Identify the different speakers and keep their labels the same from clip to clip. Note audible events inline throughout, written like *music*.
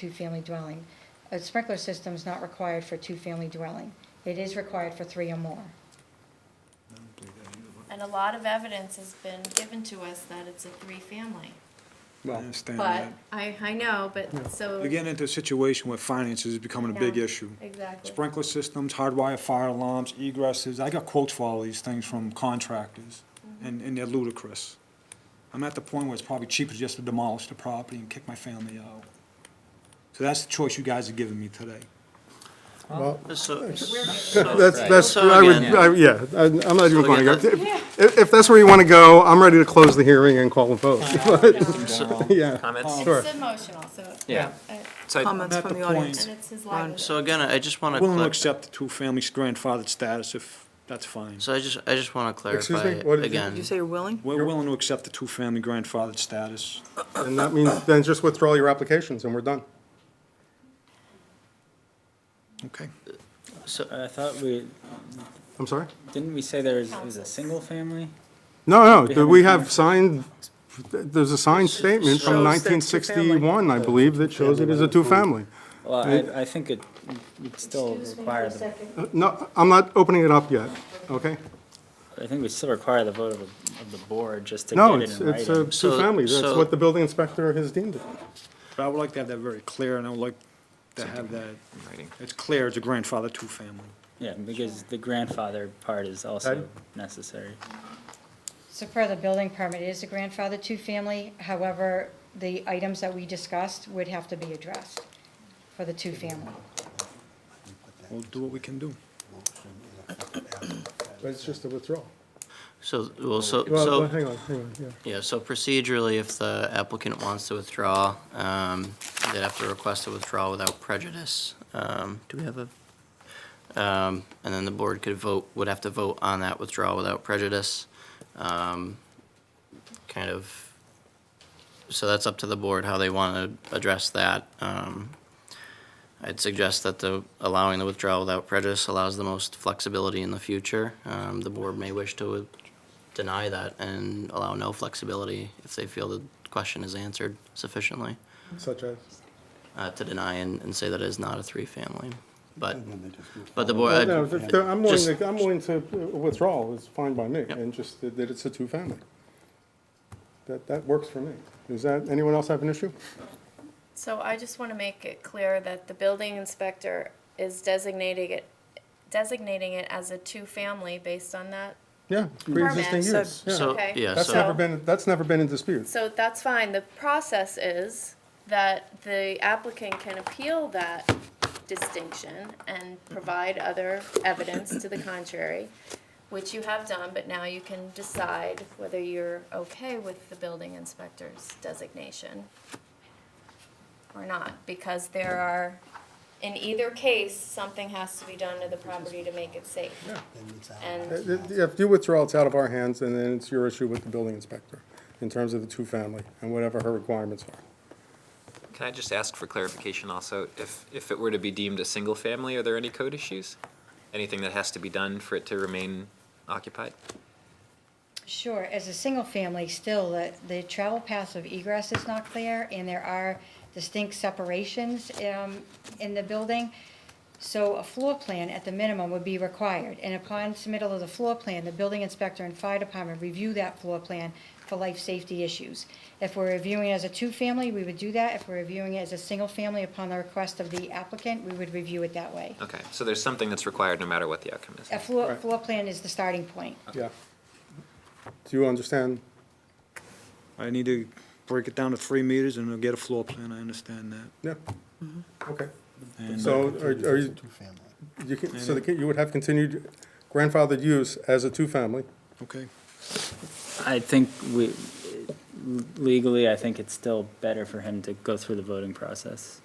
Speaker 1: two-family dwelling. A sprinkler system is not required for two-family dwelling. It is required for three or more.
Speaker 2: And a lot of evidence has been given to us that it's a three-family.
Speaker 3: I
Speaker 4: Well,
Speaker 3: understand
Speaker 2: But,
Speaker 3: that.
Speaker 2: I, I know, but so.
Speaker 3: You're getting into a situation where finances is becoming a big
Speaker 2: Yeah,
Speaker 3: issue.
Speaker 2: Exactly. *laughs*
Speaker 3: Sprinkler systems, hardwire fire alarms, egresses, I got quotes for all these things from contractors,
Speaker 2: Mm-hmm.
Speaker 3: and, and they're ludicrous. I'm at the point where it's probably cheaper just to demolish the property and kick my family out. So that's the choice you guys are giving me today.
Speaker 5: Well,
Speaker 6: So,
Speaker 5: that's, that's,
Speaker 6: So
Speaker 5: I would,
Speaker 6: again-
Speaker 5: I- yeah, I- I'm not even
Speaker 6: So
Speaker 5: going,
Speaker 6: again,
Speaker 5: if, if if that's where you want to go, I'm ready to close the hearing and call a *laughs* vote. Yeah,
Speaker 6: comments?
Speaker 5: sure.
Speaker 2: It's emotional, so.
Speaker 6: Yeah.
Speaker 2: uh,
Speaker 6: So,
Speaker 3: Comments from the audience.
Speaker 2: And it's his livelihood.
Speaker 6: so again, I just want to.
Speaker 3: Willing to accept the two-family grandfathered status if that's fine.
Speaker 6: So I just, I just want to
Speaker 5: Excuse me?
Speaker 6: clarify
Speaker 5: What did you-
Speaker 6: again.
Speaker 7: Did you say you're willing?
Speaker 3: We're willing to accept the two-family grandfathered status.
Speaker 5: And that means, then just withdraw your applications and we're done.
Speaker 3: Okay.
Speaker 6: So,
Speaker 8: I thought we,
Speaker 5: I'm sorry?
Speaker 8: didn't we say there was, it was a single family?
Speaker 5: No, no,
Speaker 8: We have
Speaker 5: we
Speaker 8: a-
Speaker 5: have signed, there's a signed statement from
Speaker 7: Shows that two-family.
Speaker 5: 1961, I believe, that shows it is a two-family.
Speaker 8: Well, I, I think it, it still
Speaker 1: Excuse me for
Speaker 8: require
Speaker 1: a
Speaker 8: the,
Speaker 1: second.
Speaker 5: Uh, No, I'm not opening it up yet, okay?
Speaker 8: I think we still require the vote of, the- of the board just to
Speaker 5: No,
Speaker 8: get it
Speaker 5: it's,
Speaker 8: in
Speaker 5: it's a
Speaker 8: writing.
Speaker 6: So-
Speaker 5: two-family, that's
Speaker 6: so-
Speaker 5: what the building inspector has deemed it.
Speaker 3: But I would like to have that very clear, and I would like to have that,
Speaker 4: Writing.
Speaker 3: it's clear it's a grandfather two-family.
Speaker 8: Yeah, because the grandfather part is also necessary.
Speaker 1: So per the building permit, it is a grandfather two-family, however, the items that we discussed would have to be addressed for the two-family.
Speaker 3: We'll do what we can do.
Speaker 5: But it's just a withdrawal.
Speaker 6: so, well, so,
Speaker 5: Well,
Speaker 6: so,
Speaker 5: hang on, hang on, yeah.
Speaker 6: yeah, so procedurally, if the applicant wants to withdraw, um, they'd have to request a withdrawal without prejudice. Um, do we have a? Um, and then the board could vote, would have to vote on that withdrawal without prejudice. Um, kind of, so that's up to the board how they want to address that. Um, I'd suggest that the, allowing the withdrawal without prejudice allows the most flexibility in the future. Um, the board may wish to deny that and allow no flexibility if they feel the question is answered sufficiently,
Speaker 5: Such as?
Speaker 6: uh, to deny and, and say that it is not a three-family. But, but the board,
Speaker 5: No, th- th- I'm willing,
Speaker 6: just-
Speaker 5: to- I'm willing to uh, withdraw, it's fine by me,
Speaker 6: Yep.
Speaker 5: and just that that it's a two-family. That, that works for me. Does that, anyone else have an issue?
Speaker 2: So I just want to make it clear that the building inspector is designating it, designating it as a two-family based on that.
Speaker 5: Yeah, pre-existing
Speaker 2: Permit.
Speaker 5: use, yeah.
Speaker 6: so,
Speaker 2: Okay.
Speaker 6: yeah,
Speaker 5: That's
Speaker 6: so.
Speaker 5: never been, that's never been in dispute.
Speaker 2: So that's fine. The process is that the applicant can appeal that distinction and provide other evidence to the contrary, which you have done, but now you can decide whether you're okay with the building inspector's designation or not, because there are, in either case, something has to be done to the property to make it safe.
Speaker 5: Uh,
Speaker 2: And
Speaker 5: th- If you withdraw, it's out of our hands, and then it's your issue with the building inspector in terms of the two-family and whatever her requirements are.
Speaker 4: Can I just ask for clarification also? If, if it were to be deemed a single family, are there any code issues? Anything that has to be done for it to remain occupied?
Speaker 1: Sure, as a single family, still, the, the travel paths of egress is not clear, and there are distinct separations, um, in the building. So a floor plan at the minimum would be required, and upon submittal of the floor plan, the building inspector and fire department review that floor plan for life safety issues. If we're reviewing it as a two-family, we would do that. If we're reviewing it as a single family upon the request of the applicant, we would review it that way.
Speaker 4: Okay, so there's something that's required no matter what the outcome is.
Speaker 1: A floor, floor plan is the starting point.
Speaker 5: Yeah. Do you understand?
Speaker 3: I need to break it down to three meters and I'll get a floor plan, I understand that.
Speaker 5: Yeah. Okay.
Speaker 3: And-
Speaker 5: So are are you, you can, so the- you would have continued grandfathered use as a two-family?
Speaker 3: uh, Okay,
Speaker 8: I think we, legally, I think it's still better for him to go through the voting process.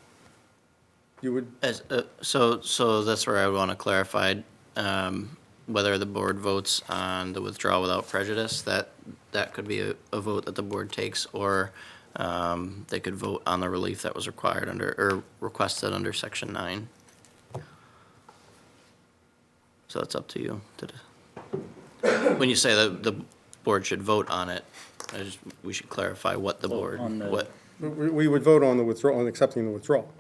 Speaker 5: You would,
Speaker 6: As, uh, so, so that's where I want to clarify, um, whether the board votes on the withdrawal without prejudice, that, that could be a, a vote that the board takes, or, um, they could vote on the relief that was required under, or requested under section nine. So it's up to you to, de- when you say that the board should vote on it, I just, we should clarify what the board,
Speaker 8: on the-
Speaker 6: what,
Speaker 5: We, we would vote on the withdrawal, on accepting the withdrawal.